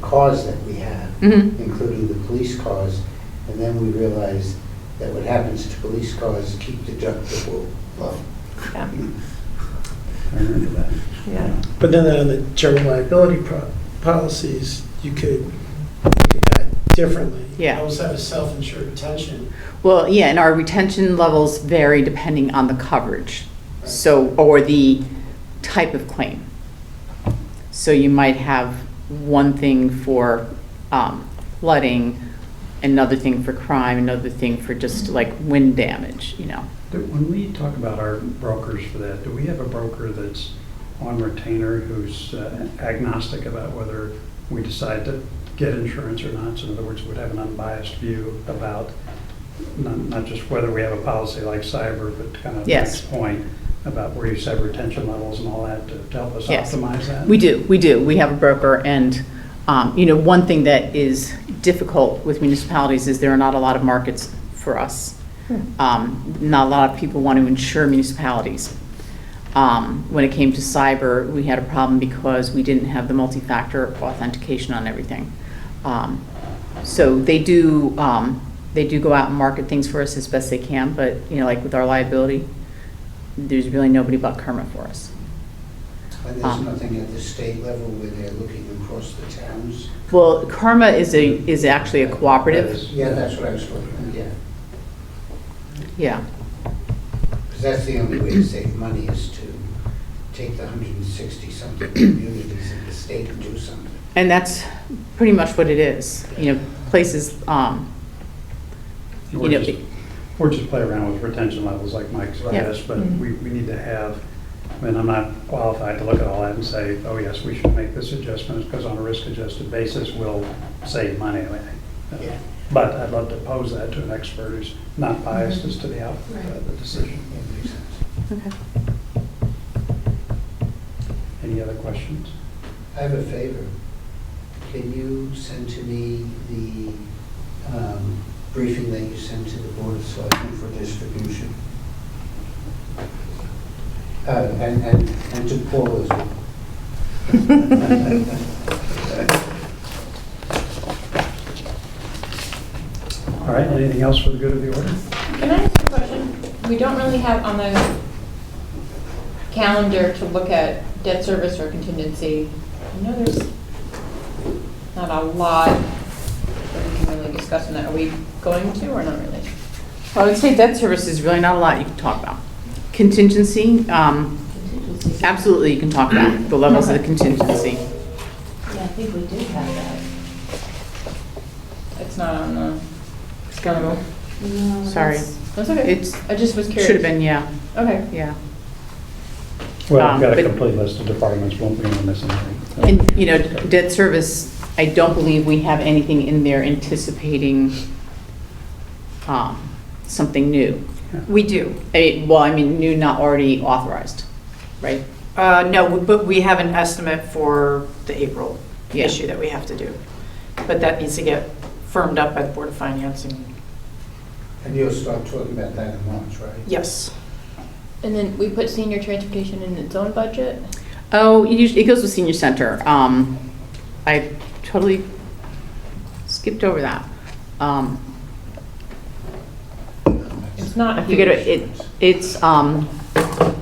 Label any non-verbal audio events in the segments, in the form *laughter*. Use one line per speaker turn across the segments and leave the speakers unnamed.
cars that we have,
Mhm.
including the police cars. And then we realized that what happens to police cars keep deductible low.
Yeah.
*laughs*
I remember that.
Yeah.
But then on the general liability pro- policies, you could look at that differently.
Yeah.
Always have a self-insured retention.
Well, yeah, and our retention levels vary depending on the coverage, so, or the type of claim. So you might have one thing for um, flooding, another thing for crime, another thing for just like wind damage, you know?
Do- When we talk about our brokers for that, do we have a broker that's on retainer who's uh, agnostic about whether we decide to get insurance or not? So in other words, would have an unbiased view about not, not just whether we have a policy like cyber, but kind of
Yes.
next point about where you set retention levels and all that to to help us
Yes.
optimize that?
We do, we do. We have a broker, and, um, you know, one thing that is difficult with municipalities is there are not a lot of markets for us. Um, Not a lot of people want to insure municipalities. Um, When it came to cyber, we had a problem because we didn't have the multi-factor authentication on everything. Um, So they do, um, they do go out and market things for us as best they can, but, you know, like with our liability, there's really nobody but Kerma for us.
And there's
Um.
nothing at the state level where they're looking across the towns.
Well, Karma is a, is actually a
That is-
cooperative,
Yeah, that's what I was looking at, yeah.
yeah.
Because that's the only way to save money is to take the 160-something communities in the state and do something.
And that's pretty much what it is, you know, places, um,
We're
you know,
just- Or just play around with retention levels like Mike suggests, but
Mhm.
we, we need to have, I mean, I'm not qualified to look at all that and say, oh yes, we should make this adjustment, because on a risk-adjusted basis, we'll save money. I mean, uh,
Yeah.
But I'd love to pose that to an expert who's not biased
Mm-hmm.
as to the output of the decision.
That makes sense.
okay.
Any other questions?
I have a favor. Can you send to me the um, briefing that you sent to the Board of Selectmen for distribution? Uh, And, and, and to Paul as well.
All right, anything else for the good of the
Um,
order?
Can I ask a question? We don't really have on the calendar to look at debt service or contingency. I know there's not a lot that we can really discuss in that. Are we going to or not really?
I would say debt service is really not a lot you can talk about. Contingency, um, absolutely you can talk about the levels of the contingency.
Yeah, I think we do have that.
It's not on the calendar.
No,
Sorry.
that's-
That's okay.
It's,
I just was curious.
should have been, yeah,
Okay.
yeah.
Well, we've
Um,
got a
but-
complete list of departments, won't be on this anything.
And, you know, debt service, I don't believe we have anything in there anticipating um, something new.
We do.
I- Well, I mean, new, not already authorized, right?
Uh, No, but we have an estimate for the April
Yeah.
issue that we have to do. But that needs to get firmed up by the Board of Finance and,
*laughs* And you'll start talking about that in March, right?
yes.
And then we put senior transportation in its own budget?
Oh, it usually, it goes with senior center. Um, I totally skipped over that. Um,
It's not
I figured
huge.
it, it's, um,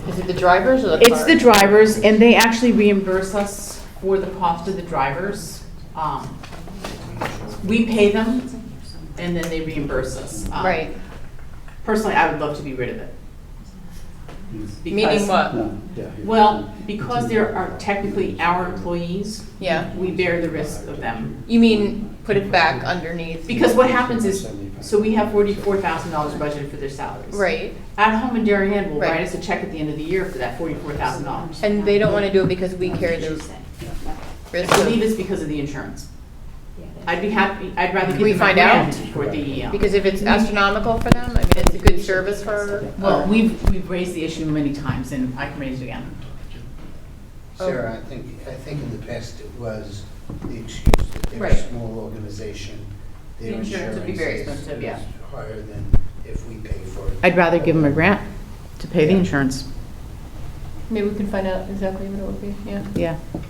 Is it the drivers or the
it's the
cars?
drivers, and they actually reimburse us for the cost of the drivers. Um, We pay them, and then they reimburse us. Um,
Right.
Personally, I would love to be rid of it.
Meaning
Because-
what?
No, yeah.
Well, because there are technically our employees,
Yeah.
we bear the risk of them.
You mean put it back underneath?
Because what happens is, so we have forty-four thousand dollars budgeted for their salaries.
Right.
At home and Darien will write
Right.
us a check at the end of the year for that forty-four thousand dollars.
And they don't want to do it because we carry the
I
risk
believe
of,
it's because of the insurance. I'd be happy, I'd rather
We
give them a
find out?
grant for the, um,
because if it's astronomical for them, I mean, it's a good service for. uh,
well, we've, we've raised the issue many times and I can raise it again. oh.
Sarah, I think, I think in the past it was the excuse that they're a
Right.
small organization. Their
The insurance would be very expensive, yeah.
is Higher than if we pay for it.
I'd rather give them a grant to pay the insurance,
Maybe we can find out exactly what it would be, yeah.
yeah.